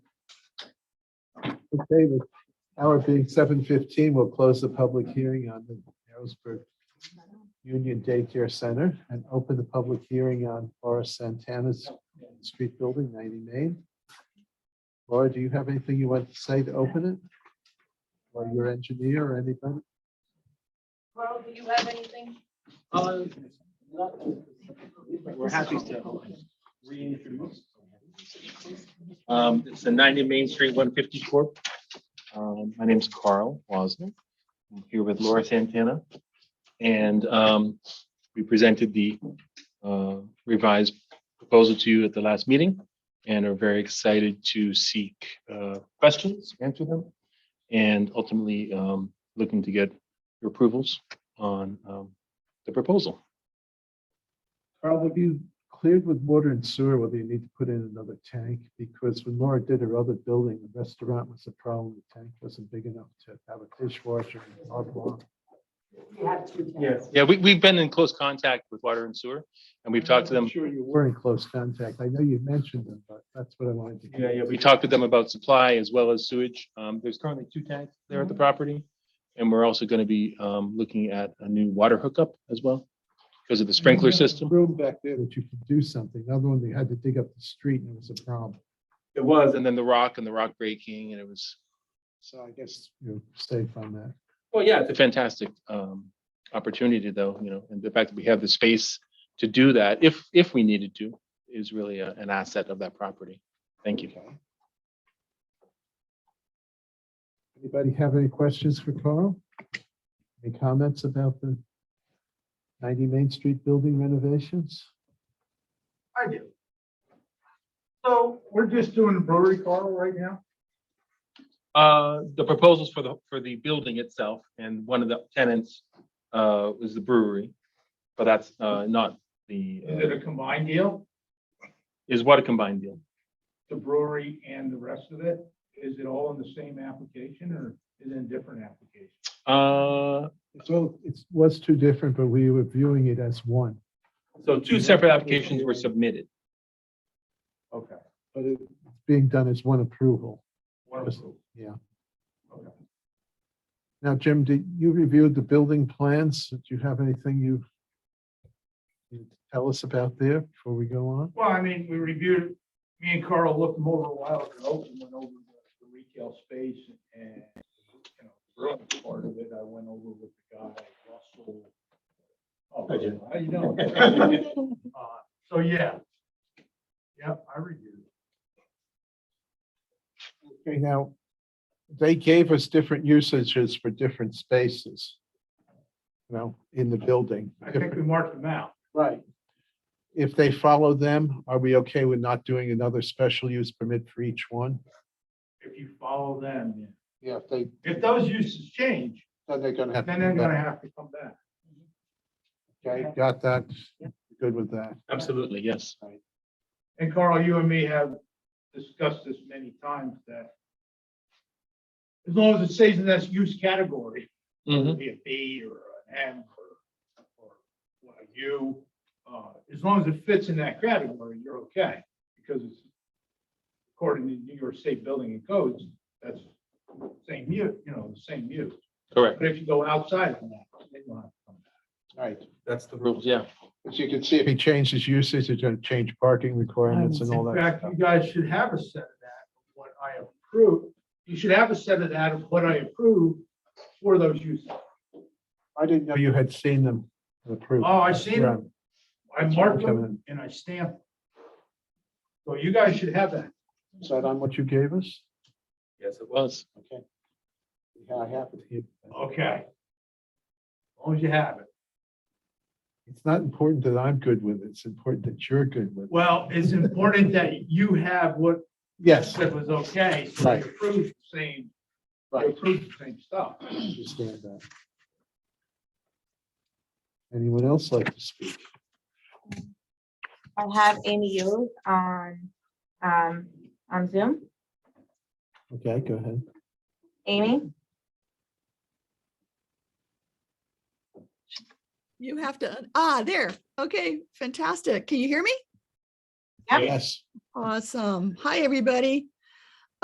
Okay, the hour being seven fifteen, we'll close the public hearing on the Harrisburg Union Daycare Center and open the public hearing on Laura Santana's street building ninety Main. Laura, do you have anything you want to say to open it? Or your engineer or anybody? Well, do you have anything? Uh, nothing. We're happy to reintroduce. Um, it's the ninety Main Street, one fifty Corp. Um, my name's Carl Wozniak. I'm here with Laura Santana. And, um, we presented the, uh, revised proposal to you at the last meeting and are very excited to seek, uh, questions, answer them, and ultimately, um, looking to get your approvals on, um, the proposal. Carl, have you cleared with water and sewer whether you need to put in another tank? Because when Laura did her other building, the restaurant was a problem. The tank wasn't big enough to have a dishwasher and blah, blah. Yes. Yeah, we, we've been in close contact with water and sewer, and we've talked to I'm them. Sure, you were in close contact. I know you mentioned them, but that's what I wanted to. hear. We talked to them about supply as well as sewage. Um, there's currently two tanks there at the property. And we're also gonna be, um, looking at a new water hookup as well because of the Mm-hmm. sprinkler system. Room back there that you could do something. Another one, they had to dig up the street and it was a problem. It was. And then the rock and the rock breaking and it was, So I guess you're safe on that. well, yeah, it's a fantastic, um, opportunity though, you know, and the fact that we have the space to do that, if, if we needed to, is really a- an asset of that property. Thank you. Okay. Anybody have any questions for Carl? Any comments about the 90 Main Street building renovations? I do. So we're just doing the brewery car right now? Uh, the proposals for the, for the building itself, and one of the tenants, uh, was the brewery. But that's, uh, not the, Is it uh, a combined deal, is what a combined deal. the brewery and the rest of it? Is it all in the same application or is it a different application? Uh, So it was two different, but we were viewing it as one. so two separate applications were submitted. Okay. But it's being done as one approval. One approval. Yeah. Okay. Now, Jim, did you reviewed the building plans? Do you have anything you you tell us about there before we go on? Well, I mean, we reviewed, it. me and Carl looked them over a while ago and went over the- the retail space and, you know, growing part of it, I went over with the guy, Russell. Oh, Hi, Jim. how you doing? Uh, So, yeah. Yep, I reviewed it. Okay, now, they gave us different usages for different spaces. You know, in the building. I think we marked them out. Right. If they follow them, are we okay with not doing another special use permit for each one? If you follow them, yeah. Yeah, if they, If those uses change, then they're gonna have. to then they're come back. gonna have to come back. Okay, got that. Good with that. Absolutely, yes. And Carl, you and me have discussed this many times that as long as it stays in that use category, whether Mhm. it be a B or an M or, or a U, uh, as long as it fits in that category, you're okay. Because it's according to New York State Building and Codes, that's same use, you know, the same use. correct. But if you go outside of that, they don't have to come back. Right. That's the rules, yeah. As you can see, if he changes uses, it's gonna change parking requirements and all In that. fact, stuff. you guys should have a set of that, of what I approve. You should have a set of that of what I approve for those uses. I didn't know you had seen them approved. Oh, I seen them. I That's mark coming them in. and I stamp. them. So you guys should have that. Is that on what you gave us? Yes, it was. Okay. Yeah, I have it here. Okay. As long as you have it. It's not important that I'm good with it. It's important that you're good with it. Well, it's important that you have what Yes, that was okay, so Right. you approve the same, you right. approve the same stuff. Understand that. Anyone else like to speak? I have NEOs on, um, on Zoom. Okay, go ahead. Amy? You have to, un- ah, there. Okay, fantastic. Can you hear me? Yep. Yes. Awesome. Hi, everybody.